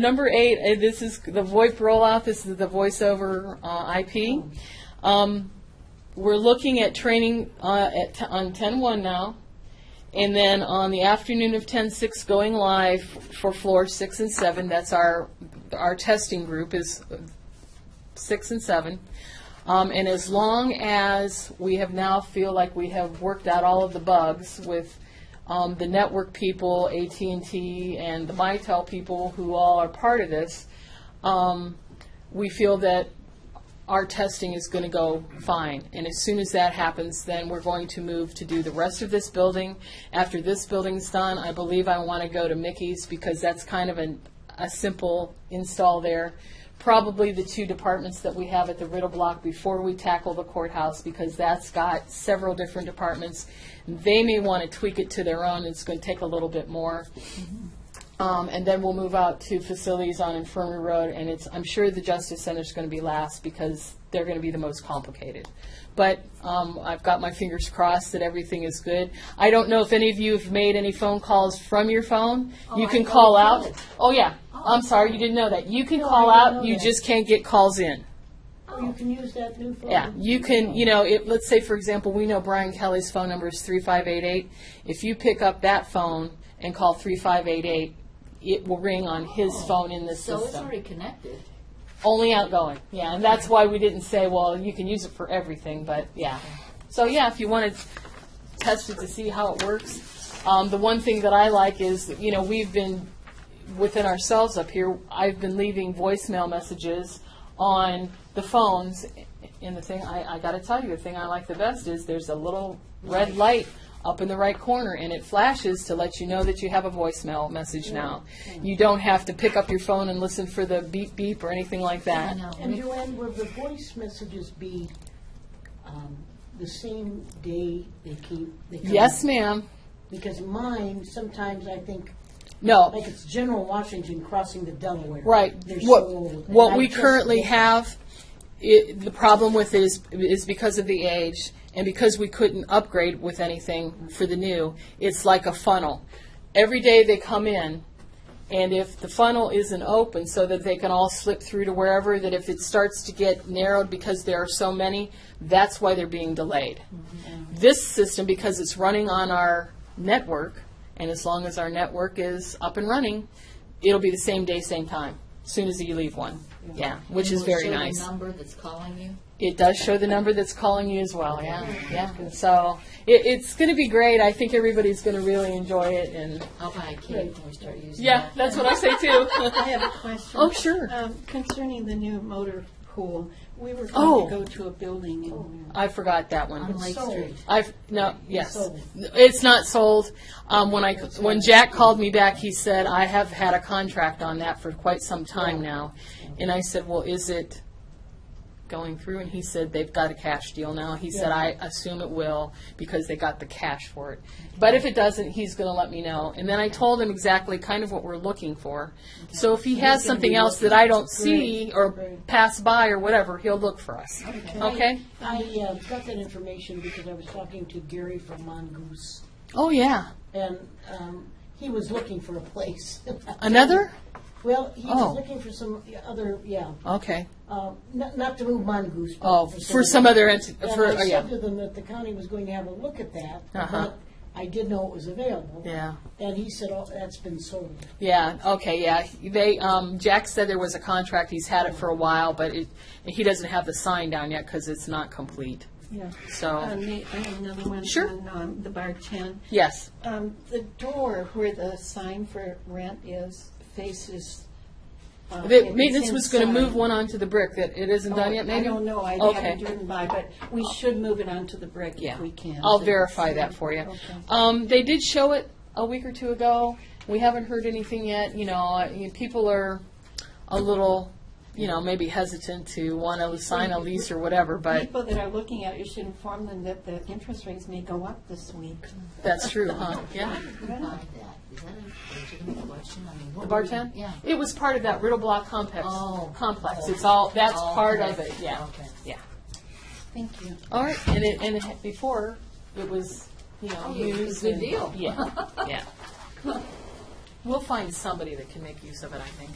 Number eight, eh, this is the VoIP rollout, this is the voice over uh, IP. Um, We're looking at training uh, at t- on 10-1 now, and then on the afternoon of 10-6, going live for floor six and seven. That's our, our testing group is six and seven. Um, and as long as we have now feel like we have worked out all of the bugs with um, the network people, AT&T, and the Mitel people who all are part of this, um, we feel that our testing is going to go fine. And as soon as that happens, then we're going to move to do the rest of this building. After this building's done, I believe I want to go to Mickey's because that's kind of an, a simple install there. Probably the two departments that we have at the Riddle Block before we tackle the courthouse because that's got several different departments. They may want to tweak it to their own. It's going to take a little bit more. Um, and then we'll move out to facilities on Infirmary Road, and it's, I'm sure the Justice Center's gonna be last because they're gonna be the most complicated. But, um, I've got my fingers crossed that everything is good. I don't know if any of you have made any phone calls from your phone. You I can thought call you out. did. Oh, yeah. I'm sorry, you didn't know that. You can No, I call didn't out, know you that. just can't get calls in. You can use that new phone. Yeah, you can, you know, it, let's say, for example, we know Brian Kelly's phone number is three five eight eight. If you pick up that phone and call three five eight eight, it will ring on his phone in the So it's system. already connected. Only outgoing, yeah, and that's why we didn't say, well, you can use it for everything, but, yeah. So, yeah, if you want to test it to see how it works. Um, the one thing that I like is, you know, we've been, within ourselves up here, I've been leaving voicemail messages on the phones. And the thing, I, I gotta tell you, the thing I like the best is there's a little red light up in the right corner and it flashes to let you know that you have a voicemail message now. You don't have to pick up your phone and listen for the beep beep or anything like that. know. And Joanne, will the voice messages be um, the same day they keep? they come Yes, out? ma'am. Because mine, sometimes I think, No. like it's General Washington crossing the Delaware. Right. They're so What, old. what And we I just- currently have, it, the problem with it is, is because of the age and because we couldn't upgrade with anything for the new, it's like a funnel. Every day they come in, and if the funnel isn't open so that they can all slip through to wherever, that if it starts to get narrowed because there are so many, that's why they're being delayed. This system, because it's running on our network, and as long as our network is up and running, it'll be the same day, same time, soon as you leave one. Yeah, which And is will very show the nice. number that's calling you. It does show the number that's calling you as well, yeah, yeah. So it, it's going to be great. I think everybody's going to really enjoy it, and I'll buy a cake when we start using yeah, that. that's what I say too. I have a question. Oh, sure. Um, Concerning the new motor pool, we were Oh. going to go to a building and I forgot that one. On Lake sold. Street. I've, no, yes. sold. It's not sold. Um, when I, when Jack called me back, he said, I have had a contract on that for quite some time now. And I said, well, is it going through? And he said, they've got a cash deal now. He said, I assume it will because they got the cash for it. But if it doesn't, he's gonna let me know. And then I told him exactly kind of what we're looking for. So if he has something else that I don't see or pass by or whatever, he'll look for us. Okay? I uh, got that information because I was talking to Gary from Mongoose, Oh, yeah. and um, he was looking for a place. Another? Well, he Oh. was looking for some other, yeah, Okay. uh, not not to move Mongoose. but Oh, for some other entity, And for, I oh, yeah. said to them that the county was going to have a look at that, Uh-huh. but I did know it was available. Yeah. And he said, oh, that's been sold. Yeah, okay, yeah. They, um, Jack said there was a contract, he's had it for a while, but it, he doesn't have the sign down yet because it's not complete. yeah. Uh, So, Nate, I have another one. Sure. on, um, The bar 10. yes, Um, The door where the sign for rent is faces. uh, the it's maintenance was gonna inside. move one onto the brick, that it isn't done yet, um, Oh, maybe? I don't know, I Okay. haven't driven by, but we should move it onto the brick Yeah. if we can. I'll verify that for you. Okay. Um, they did show it a week or two ago. We haven't heard anything yet, you know, I- you- people are a little, you know, maybe hesitant to wanna sign a lease or whatever, but People that are looking at it, you should inform them that the interest rates may go up this week. that's true, huh? Yeah. Who bought that? Is that a legitimate question? I mean, what The were bar you- tent? Yeah. It was part of that Riddle Block complex, Oh. complex, it's all, that's Oh, part okay. of it, yeah, Okay. yeah. Thank you. All right, and it, and it had- before, it was, you know, Oh, it was a used. good and- deal. Yeah, yeah. We'll find somebody that can make use of it, I think.